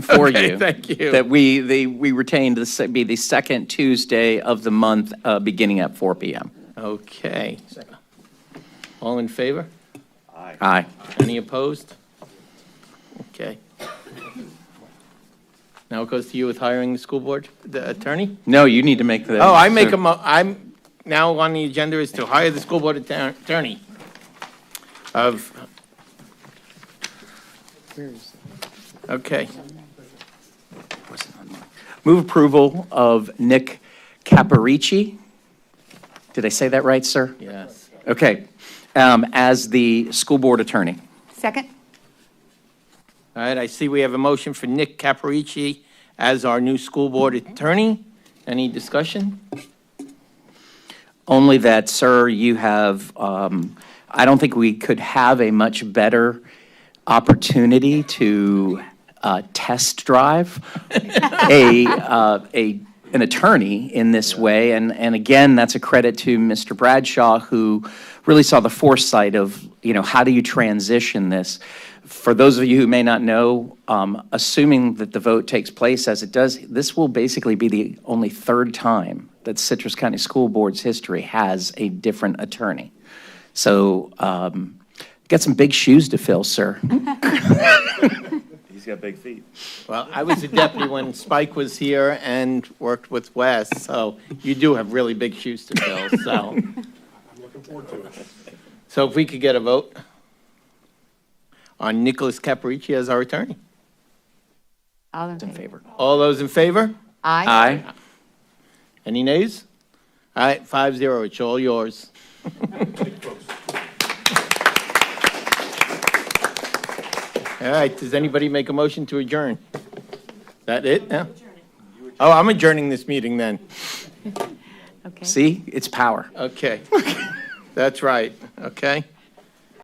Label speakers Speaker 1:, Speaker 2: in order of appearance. Speaker 1: for
Speaker 2: Okay,
Speaker 1: you.
Speaker 2: thank you.
Speaker 1: That we, the, we retained this, it'd be the second Tuesday of the month, uh, beginning at 4 PM.
Speaker 2: Okay. All in favor?
Speaker 1: Aye.
Speaker 2: Any opposed? Okay. Now it goes to you with hiring the school board, the attorney?
Speaker 1: No, you need to make the.
Speaker 2: Oh, I make a mo, I'm, now on the agenda is to hire the school board atter- attorney of, okay,
Speaker 1: Move approval of Nick Caparici. Did I say that right, sir?
Speaker 2: yes.
Speaker 1: Okay, um, as the school board attorney.
Speaker 3: Second?
Speaker 2: All right, I see we have a motion for Nick Caparici as our new school board attorney. Any discussion?
Speaker 1: Only that, sir, you have, um, I don't think we could have a much better opportunity to uh, test drive a, uh, a, an attorney in this way. And, and again, that's a credit to Mr. Bradshaw, who really saw the foresight of, you know, how do you transition this? For those of you who may not know, um, assuming that the vote takes place as it does, this will basically be the only third time that Citrus County School Board's history has a different attorney. So, um, got some big shoes to fill, sir.
Speaker 4: He's got big feet.
Speaker 2: Well, I was a deputy when Spike was here and worked with Wes, so you do have really big shoes to fill, so. I'm looking forward to it. So if we could get a vote on Nicholas Caparici as our attorney.
Speaker 3: All in
Speaker 1: In
Speaker 3: favor?
Speaker 1: favor?
Speaker 2: All those in favor?
Speaker 3: Aye.
Speaker 2: Any nays? All right, five zero, it's all yours. All right, does anybody make a motion to adjourn? That it now? Oh, I'm adjourning this meeting then.
Speaker 3: Okay.
Speaker 1: See, it's power.
Speaker 2: Okay. That's right, okay?